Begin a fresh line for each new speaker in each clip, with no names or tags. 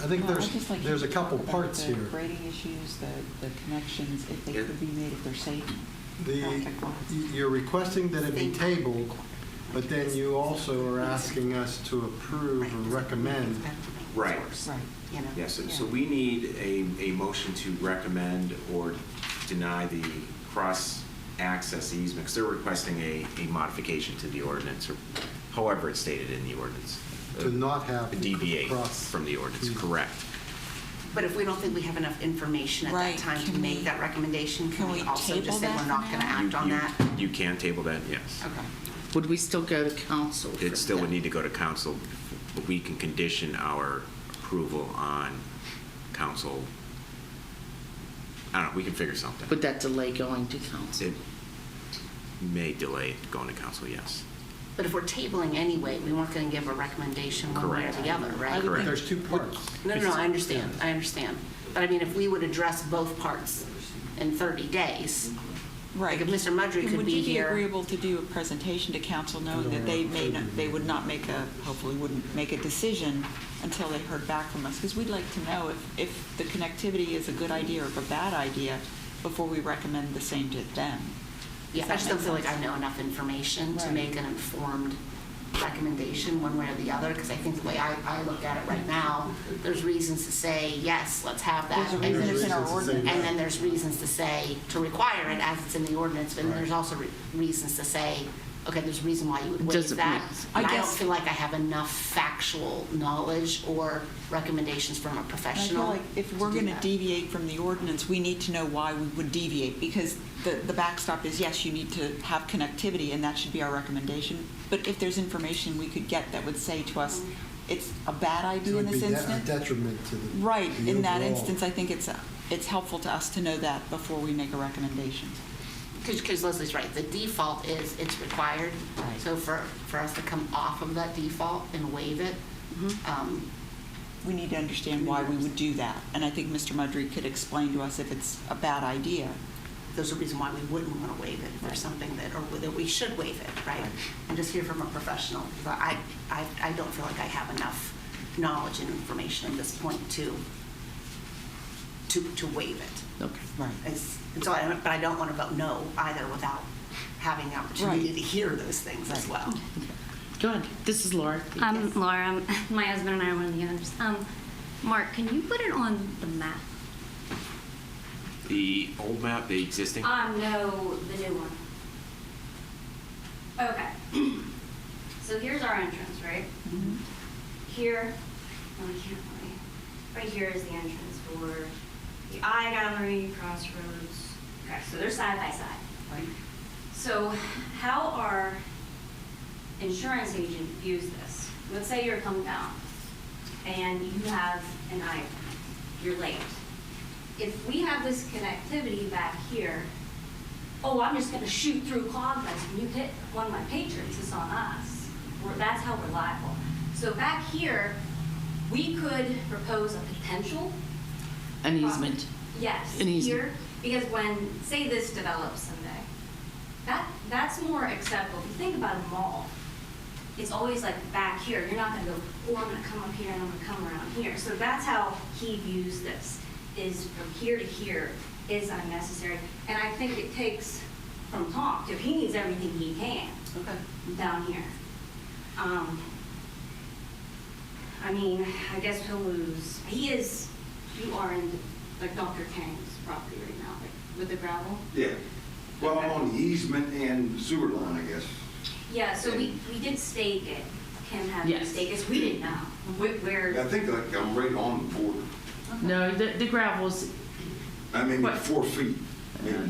I think
Well, I'd
there's,
just like
there's a
you to talk
couple
about
parts
the
here.
Grading issues, the, the connections, if they
It-
could be made, if they're safe.
The,
Electric
y-
lines.
you're requesting that it be
State law.
tabled, but then you also are asking us to approve or recommend.
Right.
Right.
You know?
Yes, so- so
Yeah.
we need a, a motion to recommend or deny the cross-access easement, because they're requesting a, a modification to the ordinance, or however it's stated in the ordinance. Uh,
To not have
A DBA
cross-
from the ordinance, correct.
But if we don't think we have enough information at
Right,
that time to
can
make
we-
that recommendation, can
can
we
we
also
table
just say
that
we're
for
not going to
now?
act
You-
on
you-
that?
You can table that, yes.
Okay.
Would we still go to council? for
It still would
that?
need to go to council, but we can condition our approval on council. I don't know, we can figure something.
Would that delay going to council?
It may delay going to council, yes.
But if we're tabling anyway, we weren't going to give a recommendation one way or
Correct.
the other, right?
Correct.
There's two parts.
No, no, no, I understand, I understand. But I mean, if we would address both parts in 30 days,
Right.
Like, if Mr. Mudry
And
could be here-
Would you be agreeable to do a presentation to council knowing that they may not, they would not make a, hopefully wouldn't make a decision until they heard back from us? Because we'd like to know if, if the connectivity is a good idea or a bad idea before we recommend the same to them.
yeah, I
that
just don't
make
feel like I
sense?
know enough information to
Right.
make an informed recommendation one way or the other, because I think the way I, I look at it right now, there's reasons to say, yes, let's have that.
There's a
and
reason it's in our
There's reasons to say
ordinance.
And then there's reasons to say, to require it as it's in the ordinance, but then
Right.
there's also re- reasons to say, okay, there's a reason why you would waive
Doesn't
that.
make sense.
And
I
I don't
guess-
feel like I have enough factual knowledge or recommendations from a
And I feel
professional.
like if we're
do
going to
that.
deviate from the ordinance, we need to know why we would deviate, because the, the backstop is, yes, you need to have connectivity, and that should be our recommendation. But if there's information we could get that would say to us, it's a bad
It
idea in
would be
this
de- a
instance.
detriment to the.
Right,
the
in that
overall.
instance, I think it's, a- it's helpful to us to know that before we make a recommendation.
Because Leslie's right, the default is it's required.
Right.
So for, for us to come off of that default and waive it,
Mm-hmm.
um,
We need to understand why we would do that, and I think Mr. Mudry could explain to us if it's a bad idea.
there's a reason why we wouldn't want to waive it if there's something that, or that we should waive it, right? And just hear from a professional. But I, I, I don't feel like I have enough knowledge and information at this point to, to, to waive it.
Okay.
Right.
It's- And so I, don't- but I don't want to vote no either without having the opportunity
Right.
to hear those things as
Right.
well.
Go ahead. This is Laura.
I'm Laura. I'm- My husband and I are one of the owners. Um, Mark, can you put it on the map?
The old map, the existing?
Um, no, the new one. Okay. So here's our entrance, right? Here, no, we can't really. Right here is the entrance for the eye gallery, crossroads. Okay, so they're side by side. So how our insurance agent views this, let's say you're coming down and you have an eye, you're late. If we have this connectivity back here, oh, I'm just gonna shoot through cloud lights, when you hit one of my patrons, it's on us. We're- That's how we're liable. So back here, we could propose a potential
An easement.
Um, Yes,
An easement.
here, because when, say this develops someday, that, that's more acceptable. If you think about a mall, it's always like back here, you're not gonna go, oh, I'm gonna come up here and I'm gonna come around here. So that's how he views this, is from here to here is unnecessary. And I think it takes from Tom, if he needs everything he can
Okay.
down here. Um, I mean, I guess he'll lose, he is, you are in, like, Dr. Kang's property right now, like, with the gravel.
Yeah, well, I'm on the easement and sewer line, I guess.
Yeah, so we, we did stake it, Kim had
Yes.
us stake it, we didn't know wh-
I
where,
think like I'm right on the border.
No, the, the gravel's,
I mean,
What?
four feet, maybe.
it-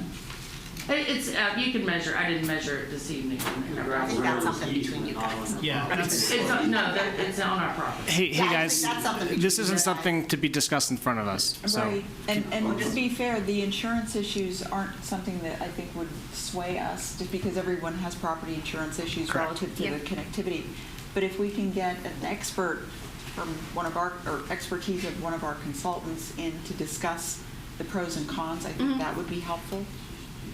it's, uh, you can measure, I didn't measure it this evening. The
I
gravel.
think that's something between you guys.
It's, on- no, that- it's on our property.
Hey, hey
Yeah, I
guys,
think that's something
this
we
isn't
should-
something to be discussed in front of us, so.
Right, and, and to be fair, the insurance issues aren't something that I think would sway us, just because everyone has property insurance issues
Correct.
relative to the
Yep.
connectivity. But if we can get an expert from one of our, or expertise of one of our consultants in to discuss the pros and cons, I think that would be helpful.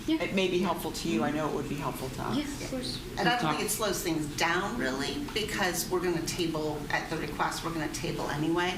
Yeah.
It may be helpful to you, I know it would be helpful to us.
of course.
And I don't think
We've talked-
it slows things down really, because we're going to table, at the request, we're going to table anyway.